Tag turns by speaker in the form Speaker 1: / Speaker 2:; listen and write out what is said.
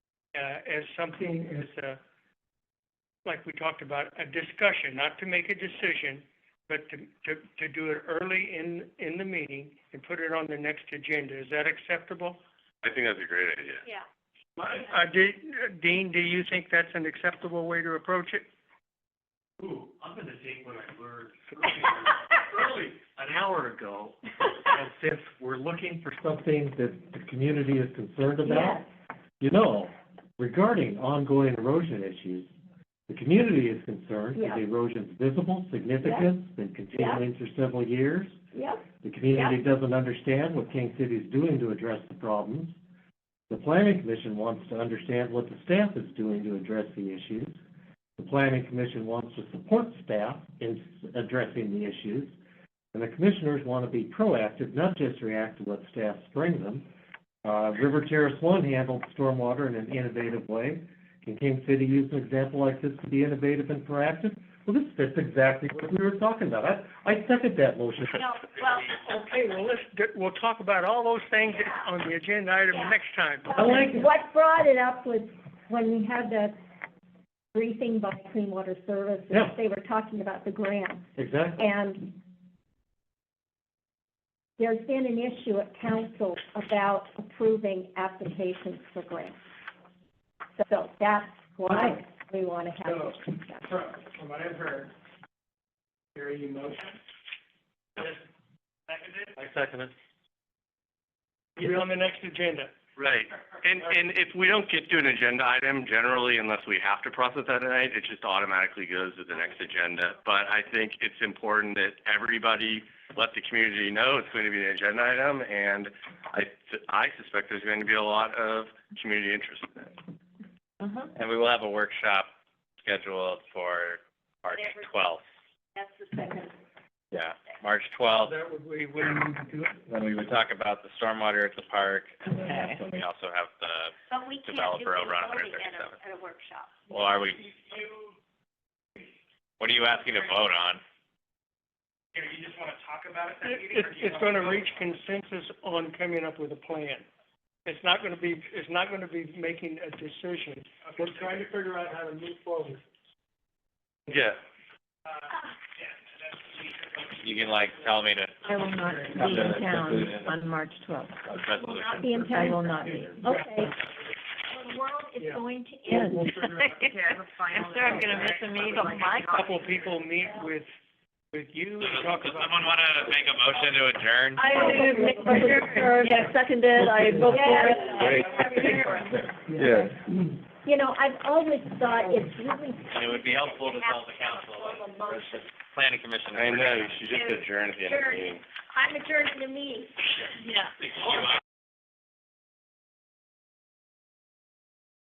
Speaker 1: uh, as something as, uh, like we talked about, a discussion, not to make a decision, but to, to, to do it early in, in the meeting and put it on the next agenda. Is that acceptable?
Speaker 2: I think that's a great idea.
Speaker 3: Yeah.
Speaker 1: Uh, do- Dean, do you think that's an acceptable way to approach it?
Speaker 4: Ooh, I'm gonna take what I learned early, an hour ago, as if we're looking for something that the community is concerned about. You know, regarding ongoing erosion issues, the community is concerned that
Speaker 3: Yeah.
Speaker 4: the erosion's visible, significant, been continuing for several years.
Speaker 3: Yep,
Speaker 4: The community doesn't understand what King City is doing to address the problems. The planning commission wants to understand what the staff is doing to address the issues. The planning commission wants to support staff in s- addressing the issues. And the commissioners want to be proactive, not just react to what staff bring them. Uh, River Terrace One handled stormwater in an innovative way. Can King City use an example like this to be innovative and proactive? Well, this fits exactly what we were talking about. I, I second that motion.
Speaker 3: no, well,
Speaker 1: Okay, well, let's, d- we'll talk about all those things on the agenda item
Speaker 3: Yeah.
Speaker 1: next time.
Speaker 4: I like it.
Speaker 3: what brought it up was when we had that briefing by Clean Water Services.
Speaker 4: Yeah.
Speaker 3: They were talking about the grant,
Speaker 4: Exactly.
Speaker 3: and there's been an issue at council about approving applications for grants. So that's why we want to have this discussion.
Speaker 5: From, from what I've heard, your emotion.
Speaker 4: I second it.
Speaker 1: Put it on the next agenda.
Speaker 2: Right. And, and if we don't get to an agenda item, generally, unless we have to process that tonight, it just automatically goes to the next agenda. But I think it's important that everybody let the community know it's going to be an agenda item, and I, I suspect there's going to be a lot of community interest in it.
Speaker 6: And we will have a workshop scheduled for March twelfth.
Speaker 3: That's the second.
Speaker 6: Yeah, March twelfth,
Speaker 1: That would be when we could do it.
Speaker 6: when we would talk about the stormwater at the park, and then that's when we also have the,
Speaker 3: But we
Speaker 6: can't Developer do the over on voting at a- 137.
Speaker 3: at a workshop.
Speaker 6: well, are we? What are you asking to vote on?
Speaker 1: It, it's gonna reach consensus on coming up with a plan. It's not gonna be, it's not gonna be making a decision. We're trying to figure out how to move forward.
Speaker 2: Yeah.
Speaker 6: You can like tell me to.
Speaker 7: I will not be in town on March twelfth.
Speaker 6: a resolution.
Speaker 3: Not the
Speaker 7: I
Speaker 3: intent,
Speaker 7: will not be.
Speaker 3: okay. The world is
Speaker 1: Yeah.
Speaker 3: going to
Speaker 7: Yes.
Speaker 3: end.
Speaker 7: After I'm gonna miss a meeting. Oh
Speaker 1: A Couple of people meet with, with you and talk
Speaker 6: Does
Speaker 1: about.
Speaker 6: someone wanna make a motion to adjourn?
Speaker 7: I seconded, I vote
Speaker 2: Yeah.
Speaker 3: You know, I've always thought it's really.
Speaker 6: It would be helpful to tell the council,
Speaker 3: Have a motion.
Speaker 6: planning commission.
Speaker 2: I know, you should just adjourn at the end of the meeting.
Speaker 3: I'm adjourned to me. Yeah.
Speaker 6: Thank you.